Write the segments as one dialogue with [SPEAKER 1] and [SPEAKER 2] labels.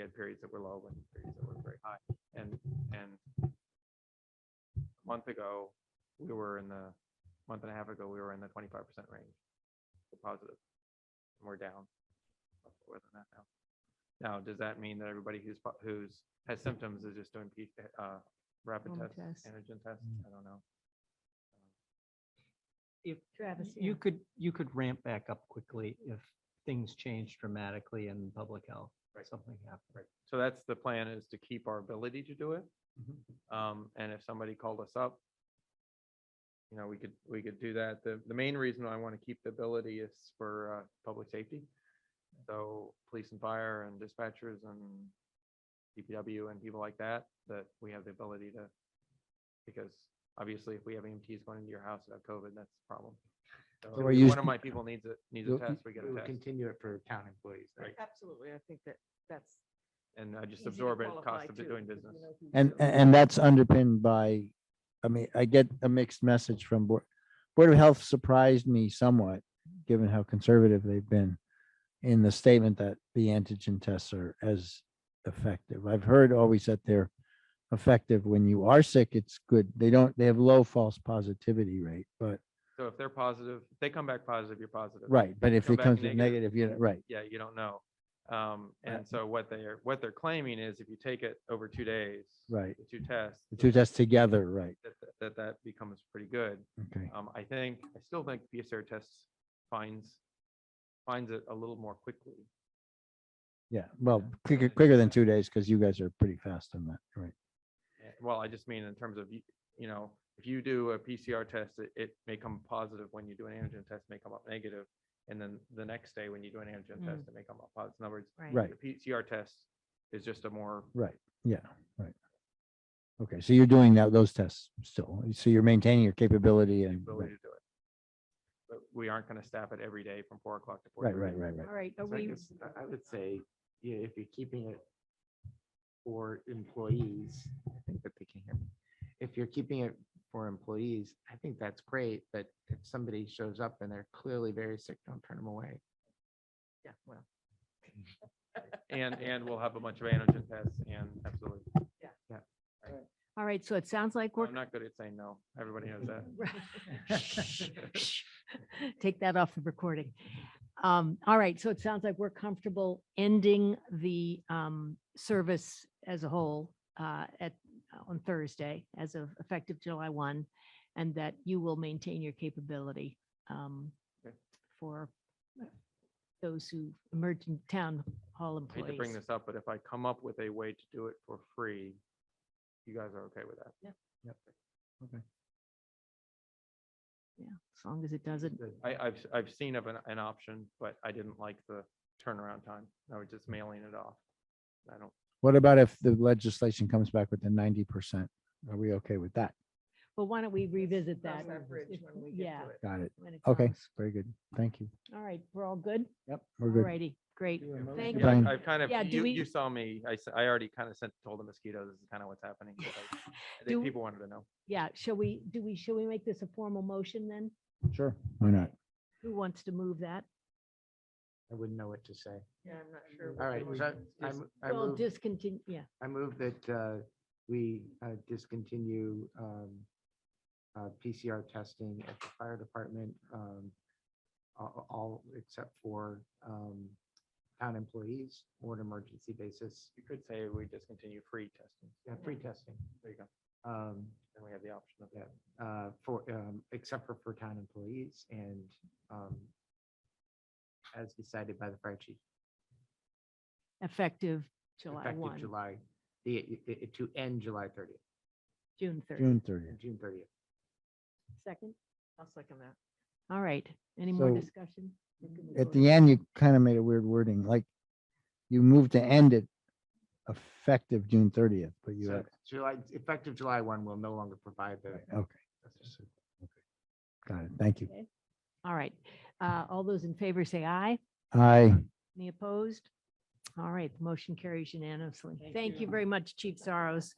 [SPEAKER 1] had periods that were low and periods that were very high. And, and a month ago, we were in the, month and a half ago, we were in the twenty-five percent range, so positive. And We're down much lower than that now. Now, does that mean that everybody who's, po- who's, has symptoms is just doing, P- uh, rapid
[SPEAKER 2] Home
[SPEAKER 1] tests,
[SPEAKER 2] test.
[SPEAKER 1] antigen tests? I don't know.
[SPEAKER 2] Travis, yeah.
[SPEAKER 3] You could, you could ramp back up quickly if things change dramatically in public health,
[SPEAKER 1] Right.
[SPEAKER 3] something happened.
[SPEAKER 1] Right. So that's the plan is to keep our ability to do it.
[SPEAKER 4] Mm-hmm.
[SPEAKER 1] Um, and if somebody called us up, you know, we could, we could do that. The, the main reason I want to keep the ability is for, uh, public safety. So police and fire and dispatchers and DPW and people like that, that we have the ability to, because obviously if we have EMTs going into your house that have COVID, that's a problem.
[SPEAKER 4] So
[SPEAKER 1] So
[SPEAKER 4] we're
[SPEAKER 1] if one
[SPEAKER 4] using-
[SPEAKER 1] of my people needs a, needs a
[SPEAKER 4] We'll-
[SPEAKER 1] test, we get
[SPEAKER 4] we
[SPEAKER 1] a
[SPEAKER 4] will
[SPEAKER 1] test.
[SPEAKER 4] Continue it for town employees. then.
[SPEAKER 2] Absolutely. I think that that's.
[SPEAKER 1] And I just
[SPEAKER 2] easy to
[SPEAKER 1] absorb it,
[SPEAKER 2] qualify
[SPEAKER 1] cost of
[SPEAKER 2] too,
[SPEAKER 1] doing
[SPEAKER 2] because you
[SPEAKER 1] business.
[SPEAKER 2] know who's
[SPEAKER 5] And,
[SPEAKER 2] doing
[SPEAKER 5] and
[SPEAKER 2] it.
[SPEAKER 5] and that's underpinned by, I mean, I get a mixed message from Board, Board of Health surprised me somewhat, given how conservative they've been in the statement that the antigen tests are as effective. I've heard always that they're effective when you are sick, it's good. They don't, they have low false positivity rate, but,
[SPEAKER 1] So if they're positive, if they come back positive, you're positive.
[SPEAKER 5] right, but if
[SPEAKER 1] Come
[SPEAKER 5] it
[SPEAKER 1] back
[SPEAKER 5] comes with
[SPEAKER 1] negative.
[SPEAKER 5] negative, you know, right.
[SPEAKER 1] Yeah, you don't know. Um,
[SPEAKER 5] Right.
[SPEAKER 1] and so what they're, what they're claiming is if you take it over two days.
[SPEAKER 5] Right.
[SPEAKER 1] The two tests.
[SPEAKER 5] The two tests together, right,
[SPEAKER 1] That, that- that, that becomes pretty good.
[SPEAKER 5] okay.
[SPEAKER 1] Um, I think, I still think PCR tests finds, finds it a little more quickly.
[SPEAKER 5] Yeah, well, quicker, quicker than two days, because you guys are pretty fast on that, right?
[SPEAKER 1] Eh, Well, I just mean in terms of, you you know, if you do a PCR test, it, it may come positive when you do an antigen test, it may come up negative, And then the next day when you do an antigen test, it may come up positive. In other words,
[SPEAKER 5] Right.
[SPEAKER 1] the PCR test is just a more
[SPEAKER 5] Right, yeah, right. Okay, so you're doing that, those tests still, so you're maintaining your capability and,
[SPEAKER 1] ability to do it. But we aren't gonna staff it every day from four o'clock to four.
[SPEAKER 5] right, right, right, right.
[SPEAKER 2] All right, are
[SPEAKER 4] So I
[SPEAKER 2] we,
[SPEAKER 4] guess I- I would say, yeah, if you're keeping it for employees, I think that they can hear me. If you're keeping it for employees, I think that's great, but if somebody shows up and they're clearly very sick, don't turn them away.
[SPEAKER 2] yeah, well,
[SPEAKER 1] And, and we'll have a bunch of antigen tests and absolutely.
[SPEAKER 2] all right, so it sounds like we're,
[SPEAKER 1] I'm not good at saying no. Everybody knows that.
[SPEAKER 2] take that off the recording. Um, all right, so it sounds like we're comfortable ending the um service as a whole uh at, on Thursday as of effective July one, and that you will maintain your capability um
[SPEAKER 1] Okay.
[SPEAKER 2] for those who emergent town hall
[SPEAKER 1] I hate
[SPEAKER 2] employees.
[SPEAKER 1] to bring this up, but if I come up with a way to do it for free, you guys are okay with that?
[SPEAKER 2] Yeah, as long as it doesn't,
[SPEAKER 1] I, I've, I've seen of an, an option, but I didn't like the turnaround time. I was just mailing it off. I don't,
[SPEAKER 5] What about if the legislation comes back with the ninety percent? Are we okay with that?
[SPEAKER 2] well, why don't we revisit that?
[SPEAKER 6] Cross that bridge
[SPEAKER 2] if-
[SPEAKER 6] when we
[SPEAKER 2] Yeah.
[SPEAKER 6] get to it.
[SPEAKER 5] Got it.
[SPEAKER 2] when it
[SPEAKER 5] Okay,
[SPEAKER 2] comes.
[SPEAKER 5] very good. Thank you.
[SPEAKER 2] All right, we're all good?
[SPEAKER 5] Yep.
[SPEAKER 2] All
[SPEAKER 5] We're good.
[SPEAKER 2] righty, great. Thank
[SPEAKER 5] to
[SPEAKER 1] yeah,
[SPEAKER 5] Brian.
[SPEAKER 1] I- I've kind of,
[SPEAKER 2] Yeah, do
[SPEAKER 1] you,
[SPEAKER 2] we-
[SPEAKER 1] you saw me, I, s- I already kind of sent, told the mosquitoes, this is kind of what's happening. but I- I
[SPEAKER 2] Do-
[SPEAKER 1] think people wanted to know.
[SPEAKER 2] Yeah, shall we, do we, shall we make this a formal motion then?
[SPEAKER 5] Sure. Why not?
[SPEAKER 2] Who wants to move that?
[SPEAKER 4] I wouldn't know what to say.
[SPEAKER 6] Yeah, I'm not sure.
[SPEAKER 4] All right, so I,
[SPEAKER 6] Just-
[SPEAKER 4] mo- I
[SPEAKER 2] Well,
[SPEAKER 4] move,
[SPEAKER 2] discontinue, yeah.
[SPEAKER 4] I move that uh, we uh, discontinue um, uh, PCR testing at the fire department, um, a- a- all except for um, town employees or an emergency basis,
[SPEAKER 1] You could say we discontinue free testing.
[SPEAKER 4] yeah, free testing.
[SPEAKER 1] There you go.
[SPEAKER 4] um,
[SPEAKER 1] Then we have the option of
[SPEAKER 4] Yeah. uh, For, um, except for for town employees and um, as decided by the fire chief.
[SPEAKER 2] Effective July
[SPEAKER 4] effective
[SPEAKER 2] 1,
[SPEAKER 4] July, the, i- i- to end July 30th,
[SPEAKER 2] June 30.
[SPEAKER 5] June thirtieth.
[SPEAKER 4] June 30th.
[SPEAKER 2] Second?
[SPEAKER 6] I'll second that.
[SPEAKER 2] All right. Any more
[SPEAKER 5] So,
[SPEAKER 2] discussion? We can move
[SPEAKER 5] At
[SPEAKER 2] forward.
[SPEAKER 5] the end, you kind of made a weird wording, like you moved to end it effective June thirtieth, but you,
[SPEAKER 4] So
[SPEAKER 5] had-
[SPEAKER 4] July, effective July 1 will no longer provide the.
[SPEAKER 5] okay. Got it. Thank you.
[SPEAKER 2] All right. Uh, All those in favor say aye.
[SPEAKER 5] Aye.
[SPEAKER 2] Any opposed? All right, the motion carries unanimously. Thank you very much, Chief Soros.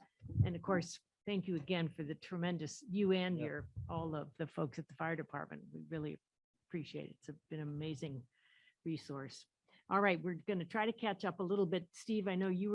[SPEAKER 2] And of course, thank you again for the tremendous, you and your, all of the folks at the fire department. We really appreciate it. It's been an amazing resource. All right, we're going to try to catch up a little bit. Steve, I know you